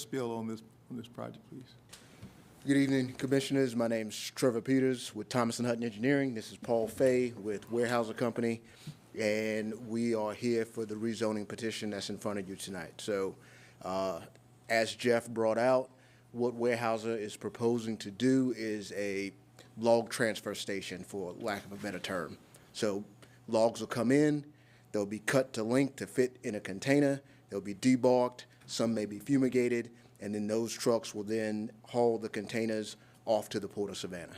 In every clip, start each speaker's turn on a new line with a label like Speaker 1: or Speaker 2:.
Speaker 1: spill on this, on this project, please?
Speaker 2: Good evening, Commissioners. My name's Trevor Peters with Thomas and Hutton Engineering. This is Paul Fay with Warehouser Company, and we are here for the rezoning petition that's in front of you tonight. So, uh, as Jeff brought out, what Warehouser is proposing to do is a log transfer station, for lack of a better term. So, logs will come in, they'll be cut to length to fit in a container, they'll be debarked, some may be fumigated, and then those trucks will then haul the containers off to the Port of Savannah.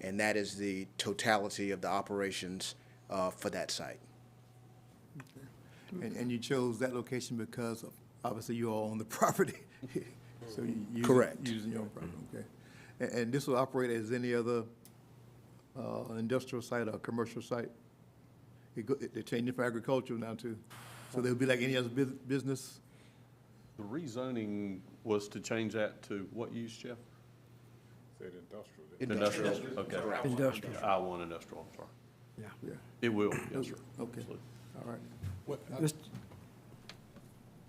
Speaker 2: And that is the totality of the operations uh, for that site.
Speaker 1: And, and you chose that location because of- obviously you are on the property. So you. you-
Speaker 2: Correct.
Speaker 1: Using your own property, okay. And, and this will operate as any other, uh, industrial site or commercial site? It go, it- they're changing for agricultural now too. So they'll be like any other bus- business?
Speaker 3: The rezoning was to change that to what use, Jeff? Industrial, okay. Industrial. I one industrial, I'm sorry.
Speaker 1: Yeah,
Speaker 3: It will, yes, sir.
Speaker 1: okay,
Speaker 3: Absolutely.
Speaker 1: all right.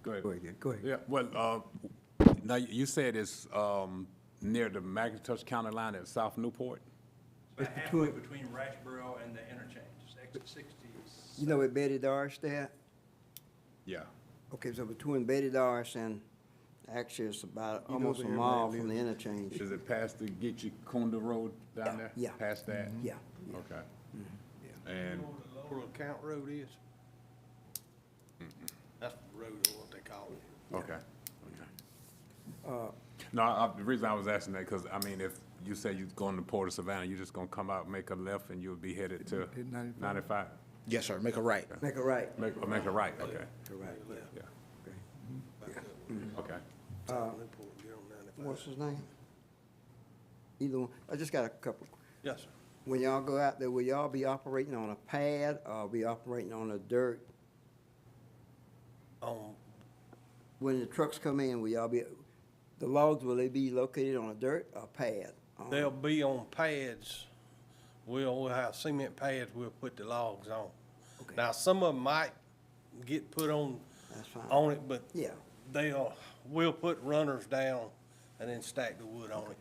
Speaker 4: Go ahead.
Speaker 5: Go ahead.
Speaker 4: Yeah, well, uh, now, you you said it's um, near the Magnatush County line at South Newport?
Speaker 6: About halfway between Ratchboro and the interchange, It's exit
Speaker 5: You
Speaker 6: sixty.
Speaker 5: know where Betty Darsh there?
Speaker 4: Yeah.
Speaker 5: Okay, so between Betty Darsh and, actually, it's about
Speaker 1: know
Speaker 5: almost a
Speaker 1: where
Speaker 5: mile
Speaker 1: everybody
Speaker 5: from the interchange.
Speaker 4: Is it past the Gitche Kunda Road down there?
Speaker 5: Yeah. Mm-hmm.
Speaker 4: Past that?
Speaker 5: Yeah.
Speaker 4: Okay. And,
Speaker 6: Lower Count Road is? That's the road, or what they call it.
Speaker 4: okay, okay. Uh, No, I- the reason I was asking that, because, I mean, if you say you're going to Port of Savannah, you're just gonna come out, make a left, and you'll be headed to
Speaker 1: Hit 95.
Speaker 4: ninety-five?
Speaker 2: Yes, sir, make a right.
Speaker 5: Make it right.
Speaker 4: Make, or make a right, okay, Mm-hmm.
Speaker 5: Make it right, yeah.
Speaker 4: yeah. Okay.
Speaker 5: What's his name? Either one. I just got a couple.
Speaker 6: Yes, sir.
Speaker 5: When y'all go out there, will y'all be operating on a pad or be operating on the dirt?
Speaker 6: On,
Speaker 5: When the trucks come in, will y'all be, the logs, will they be located on a dirt or pad? Uh,
Speaker 6: they'll be on pads. We'll, we'll have cement pads, we'll put the logs on.
Speaker 5: Okay.
Speaker 6: Now, some of them might get put on,
Speaker 5: That's fine.
Speaker 6: on it, but
Speaker 5: Yeah.
Speaker 6: they'll, we'll put runners down and then stack the wood on it.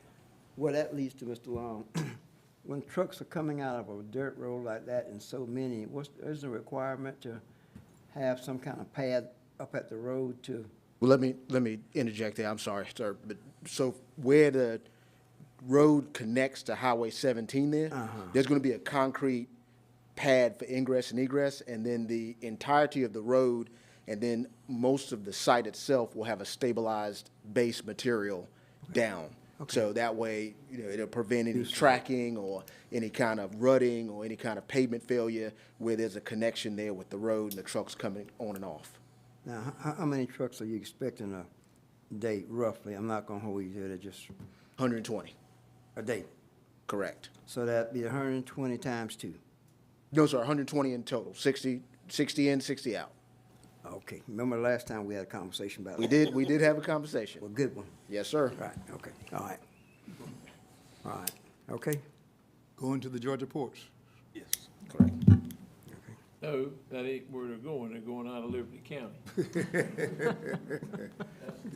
Speaker 5: Well, that leads to Mr. Long. When trucks are coming out of a dirt road like that and so many, what's, is the requirement to have some kind of pad up at the road to?
Speaker 2: Well, let me, let me interject there, I'm sorry, sir, but, so where the road connects to Highway seventeen there, there's gonna be a concrete pad for ingress and egress, and then the entirety of the road, and then most of the site itself will have a stabilized base material down. So that way, you know, it'll prevent any tracking or any kind of rutting or any kind of pavement failure where there's a connection there with the road and the trucks coming on and off.
Speaker 5: Now, how, how many trucks are you expecting a day roughly? I'm not gonna hold you to that, just
Speaker 2: Hundred and twenty.
Speaker 5: a day.
Speaker 2: Correct.
Speaker 5: So that'd be hundred and twenty times two.
Speaker 2: No, sir, 120 in total, 60, 60 in, 60 out.
Speaker 5: Okay, remember last time we had a conversation about?
Speaker 2: We did, we did have a
Speaker 5: A
Speaker 2: conversation.
Speaker 5: good one.
Speaker 2: Yes, sir.
Speaker 5: Right, okay, all right. All right, okay,
Speaker 1: Going to the Georgia ports.
Speaker 6: Yes.
Speaker 2: Correct.
Speaker 5: okay.
Speaker 7: No, that ain't where they're going, they're going out of Liberty County.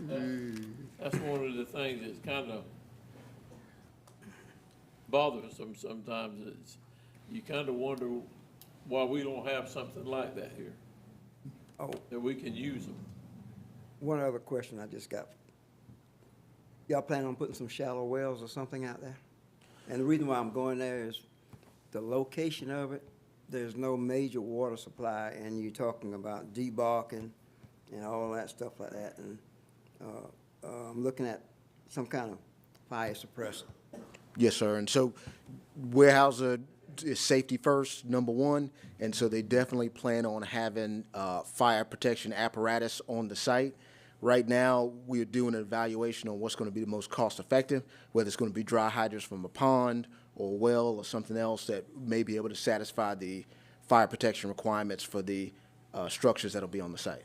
Speaker 7: That's- That's one of the things that's kind of bothersome sometimes, is you kind of wonder why we don't have something like that here,
Speaker 5: Oh,
Speaker 7: that we can use them.
Speaker 5: One other question I just got. Y'all plan on putting some shallow wells or something out there? And the reason why I'm going there is the location of it, there's no major water supply, and you're talking about debarking and all that stuff like that, and, uh, uh, I'm looking at some kind of fire suppressor.
Speaker 2: Yes, sir. And so Weyerhaeuser is safety first, number one, and so they definitely plan on having uh, fire protection apparatus on the site. Right now, we are doing an evaluation on what's going to be the most cost-effective, whether it's going to be dry hydrants from a pond or well or something else that may be able to satisfy the fire protection requirements for the uh, structures that'll be on the site.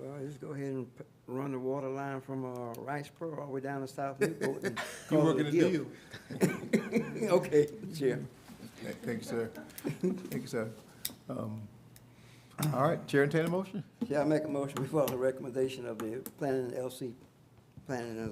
Speaker 5: Well, just go ahead and p- run the water line from, uh, Riceboro all the way down to South Newport and
Speaker 1: You
Speaker 5: call it
Speaker 1: working
Speaker 5: a
Speaker 1: a
Speaker 5: deal.
Speaker 1: deal.
Speaker 5: Okay, Chair.
Speaker 1: Thank you, sir. Thank you, sir. Um, All right, Chair, entertain a motion?
Speaker 5: Shall I make a motion before the recommendation of the planning, LC, planning and